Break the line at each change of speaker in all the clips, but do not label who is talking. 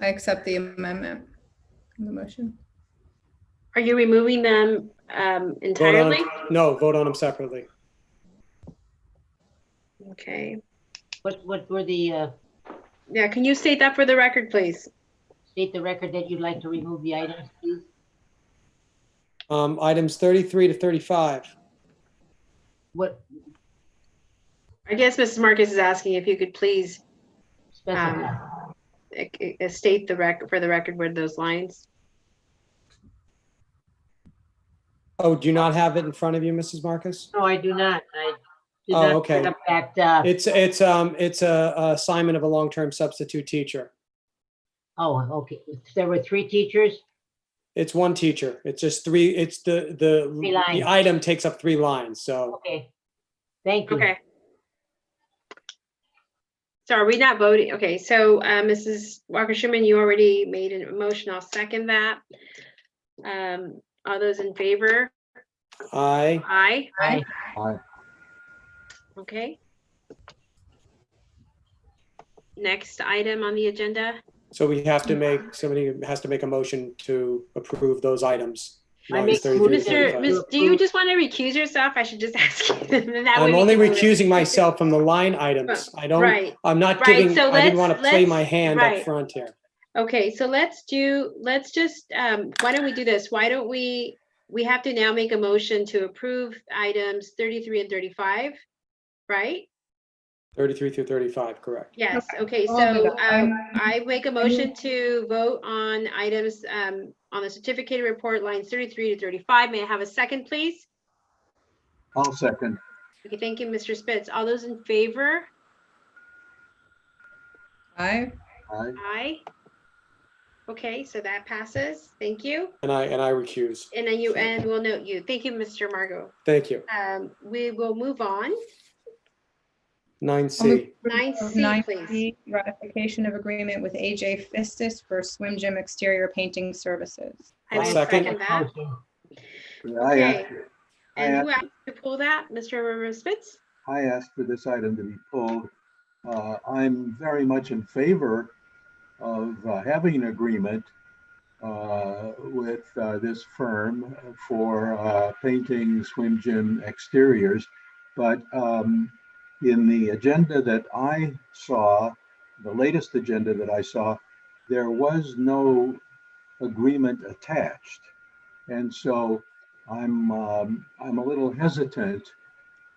I accept the amendment, in the motion.
Are you removing them um,
Vote on
entirely?
them. No, vote on them separately.
Okay.
What, what were the, uh,
Yeah, can you state that for the record, please?
state the record that you'd like to remove the items, please?
Um, items 33 to 35.
What,
I guess Mrs. Marcus is asking if you could please
specify?
eh, eh, state the record, for the record, where those lines.
Oh, do you not have it in front of you, Mrs. Marcus?
No, I do not. I did
Oh,
not
okay.
pick up that, uh,
It's, it's, um, it's a a assignment of a long-term substitute teacher.
oh, okay. There were three teachers?
It's one teacher. It's just three, it's the, the,
Three
the
lines.
item takes up three lines, so.
Okay. Thank you.
Okay. So are we not voting? Okay, so uh, Mrs. Walker Schuman, you already made a motion. I'll second that. Um, All those in favor?
I,
Aye.
Aye.
Aye.
Okay. Next item on the agenda.
so we have to make, somebody has to make a motion to approve those items.
I
Lines
make-
33 to
Mr.
35.
Ms. Do you just want to recuse yourself? I should just ask you. That way
I'm
we
only
can-
recusing myself from the line items. I don't,
Right,
I'm not
Right,
giving,
so
I
let's-
didn't want to play
let's-
my hand up
right.
front here.
okay, so let's do, let's just, um, why don't we do this? Why don't we, we have to now make a motion to approve items thirty-three and thirty-five, right?
33 through 35, correct.
Yes, okay, so
I'll do
um,
that. I'm-
I make a motion to vote on items um, on the certificated report lines thirty-three to thirty-five. May I have a second, please?
I'll second.
Okay, thank you, Mr. Spitz. All those in favor?
Aye.
Aye.
Aye. Okay, so that passes. Thank you.
And I, and I recuse.
And then you, and we'll note you. Thank you, Mr. Margot.
Thank you.
Um, we will move on.
9C.
Nine C,
Nine
please.
C, Ratification of agreement with AJ Fistis for swim gym exterior painting services.
I will
I'll
second
second.
that.
Motion.
I
Okay.
asked, I
And who
asked,
asked to pull that? Mr. Rivera Spitz?
I asked for this item to be pulled. Uh, I'm very much in favor of uh, having an agreement uh, with uh, this firm for uh, painting swim gym exteriors. But um, in the agenda that I saw, the latest agenda that I saw, there was no agreement attached. And so I'm, um, I'm a little hesitant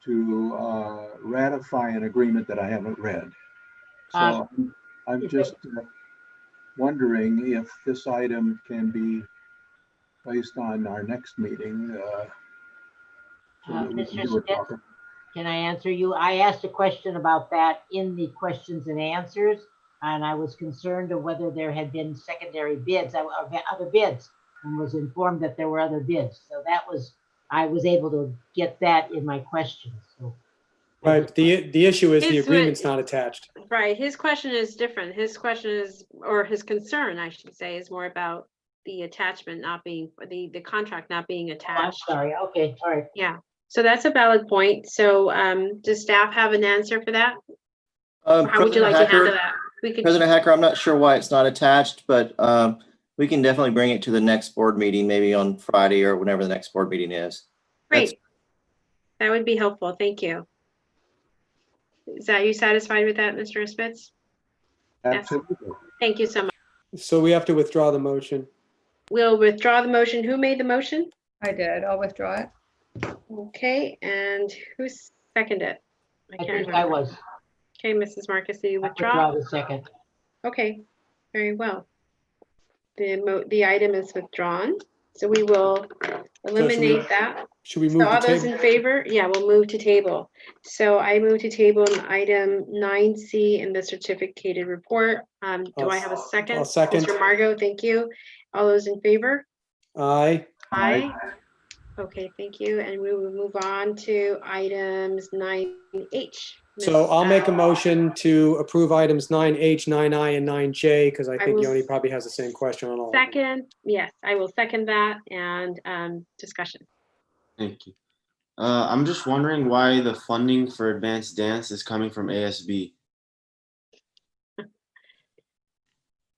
to uh, ratify an agreement that I haven't read. So I'm
if
just uh, wondering if this item can be placed on our next meeting. uh, so
Uh,
that we can
Mr.
do it
Smith?
proper.
Can I answer you? I asked a question about that in the questions and answers, and I was concerned of whether there had been secondary bids, uh, of the other bids, and was informed that there were other bids. So that was, I was able to get that in my questions, so.
Right, the, the issue is the
It's what-
agreement's not attached.
Right, his question is different. His question is, or his concern, I should say, is more about the attachment not being, the, the contract not being
I'm
attached.
sorry, okay, all right.
So that's a valid point. So um, does staff have an answer for that?
Um,
How would you
President
like to handle
Hacker-
that? We could,
President Hacker, I'm not sure why it's not attached, but um, we can definitely bring it to the next board meeting, maybe on Friday or whenever the next board meeting is. that's-
great. That would be helpful. Thank you. Is that, you satisfied with that, Mr. Spitz?
Absolutely.
Thank you so much.
So we have to withdraw the motion.
We'll withdraw the motion. Who made the motion?
I did. I'll withdraw it.
Okay, and who seconded it? I
I
can't
think
remember.
I was,
Okay, Mrs. Marcus, do you
I
withdraw?
withdraw the second.
Okay, very well. The mo, the item is withdrawn, so we will eliminate that.
Should we
So
move the
all those
table?
in favor? Yeah, we'll move to table. So I move to table item nine C in the certificated report. Um, do
I'll
I have a
s-
second?
I'll second.
Mr. Margot, thank you. All those in favor?
Aye,
Aye. Okay, thank you. And we will move on to items nine H.
so I'll make a motion to approve items 9H, 9I, and 9J, because I think
will
Yoni
s-
probably has the same question on all of them.
Second, yes, I will second that and, um, discussion.
Thank you. Uh, I'm just wondering why the funding for advanced dance is coming from ASB.